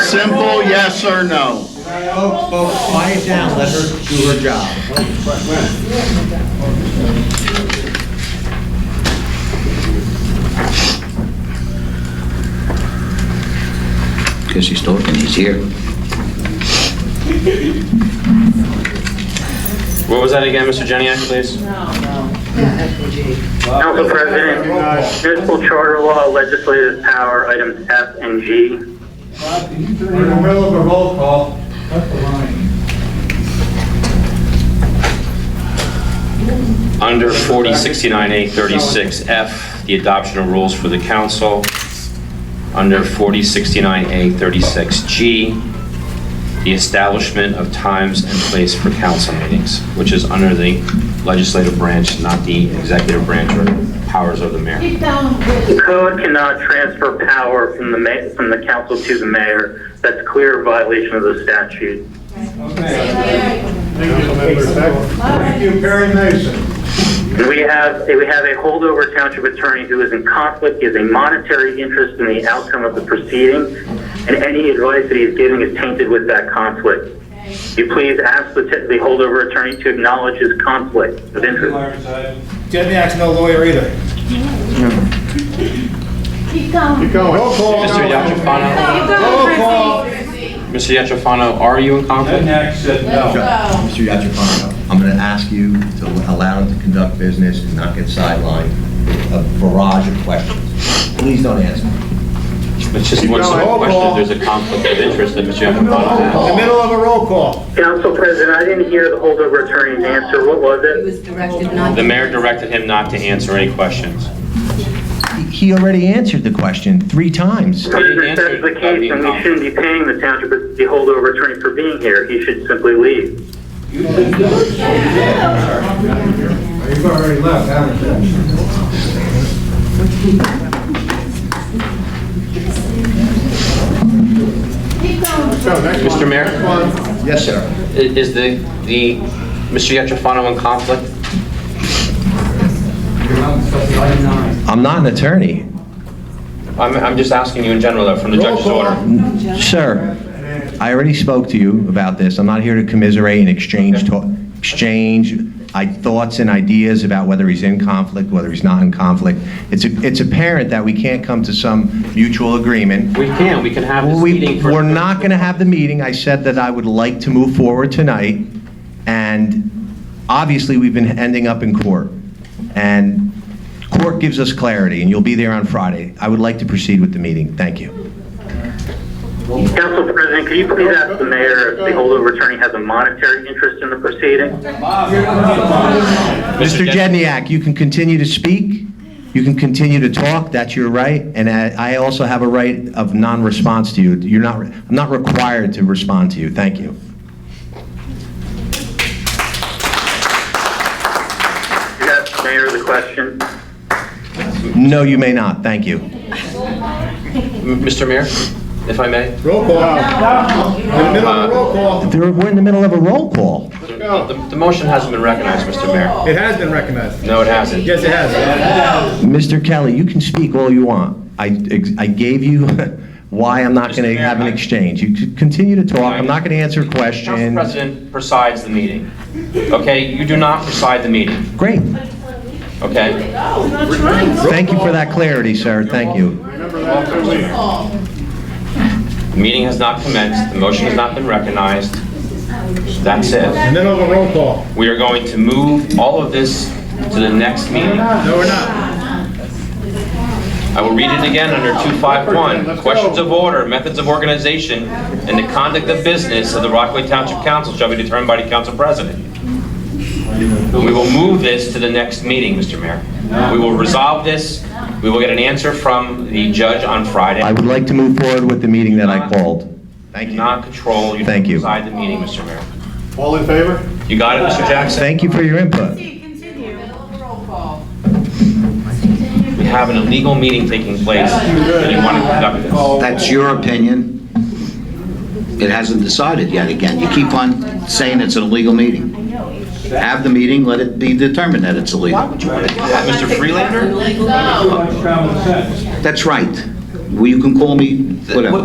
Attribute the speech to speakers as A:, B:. A: simple yes or no.
B: Folks, folks, quiet down, let her do her job.
C: Because he's talking, he's here.
D: What was that again, Mr. Jenny? please?
E: Council President, municipal charter law, legislative power, items F and G.
B: We're in the middle of a roll call.
D: Under 4069A36F, the adoption of rules for the council. Under 4069A36G, the establishment of times and place for council meetings, which is under the legislative branch, not the executive branch or powers of the mayor.
E: The code cannot transfer power from the ma, from the council to the mayor. That's a clear violation of the statute.
B: Thank you, Perry Mason.
E: And we have, we have a holdover township attorney who is in conflict, he has a monetary interest in the outcome of the proceeding, and any advice that he is giving is tainted with that conflict. You please ask the, the holdover attorney to acknowledge his conflict of interest.
B: Demiak's no lawyer either.
F: Keep going. Keep
B: Roll call.
D: Mr. Yachafano,
B: Roll call.
D: Mr. Yachafano, are you in conflict?
G: Mr. Yachafano, I'm going to ask you to allow him to conduct business and not get sidelined with a barrage of questions. Please don't answer.
D: It's just one simple question, if there's a conflict of interest that Mr. Yachafano
B: In the
D: has.
B: middle of a roll call.
E: Council President, I didn't hear the holdover attorney's answer. What was
H: He
E: it?
H: was directed not to.
D: The mayor directed him not to answer any questions.
G: He already answered the question three times.
E: If that's the case, then we shouldn't be paying the township, the holdover attorney for being here. He should simply leave.
B: You've already left, haven't you?
D: Mr. Mayor?
G: Yes, sir.
D: I- Is the, the, Mr. Yetrafano in conflict?
G: I'm not an attorney.
D: I'm, I'm just asking you in general, though, from the judge's order.
G: Sir, I already spoke to you about this. I'm not here to commiserate and exchange, to- exchange i- thoughts and ideas about whether he's in conflict, whether he's not in conflict. It's a- it's apparent that we can't come to some mutual agreement.
D: We can, we can have this
G: We,
D: meeting for...
G: we're not going to have the meeting. I said that I would like to move forward tonight, and obviously, we've been ending up in court. And court gives us clarity, and you'll be there on Friday. I would like to proceed with the meeting. Thank you.
E: Council President, could you please ask the mayor if the holdover attorney has a monetary interest in the proceeding?
G: Mr. Jedniak, you can continue to speak, you can continue to talk, that's your right, and I I also have a right of non-response to you. You're not, I'm not required to respond to you. Thank you.
E: You asked the mayor the question.
G: No, you may not. Thank you.
D: M- Mr. Mayor, if I may?
B: Roll call. In the middle of a roll call.
G: There- We're in the middle of a roll call.
D: The, the motion hasn't been recognized, Mr. Mayor.
B: It has been recognized.
D: No, it hasn't.
B: Yes, it has.
G: Mr. Kelly, you can speak all you want. I, I gave you why I'm not going
D: Mr.
G: to
D: Mayor,
G: have an
D: I-
G: exchange. You c- continue to talk, I'm not going to answer
D: Council
G: questions.
D: President presides the meeting. Okay, you do not preside the meeting,
G: Great,
D: okay?
G: thank you for that clarity, sir, thank you.
D: The meeting has not commenced, the motion has not been recognized. That's it.
B: Middle of a roll call.
D: We are going to move all of this to the next meeting.
B: No, we're not.
D: I will read it again under 251. Questions of order, methods of organization, and the conduct of business of the Rockaway Township Council shall be determined by the council president. We will move this to the next meeting, Mr. Mayor. We will resolve this. We will get an answer from the judge on Friday.
G: I would like to move forward with the meeting that I called.
D: You do not control, you
G: Thank you.
D: decide the meeting, Mr. Mayor.
B: All in favor?
D: You got it, Mr. Jackson?
G: Thank you for your input.
F: Continue. Roll call.
D: We have an illegal meeting taking place, and you want to conduct this.
C: That's your opinion. It hasn't decided yet again. You keep on saying it's an illegal meeting. Have the meeting, let it be determined that it's illegal.
D: Mr. Freelander?
C: That's right. Well, you can call me, whatever.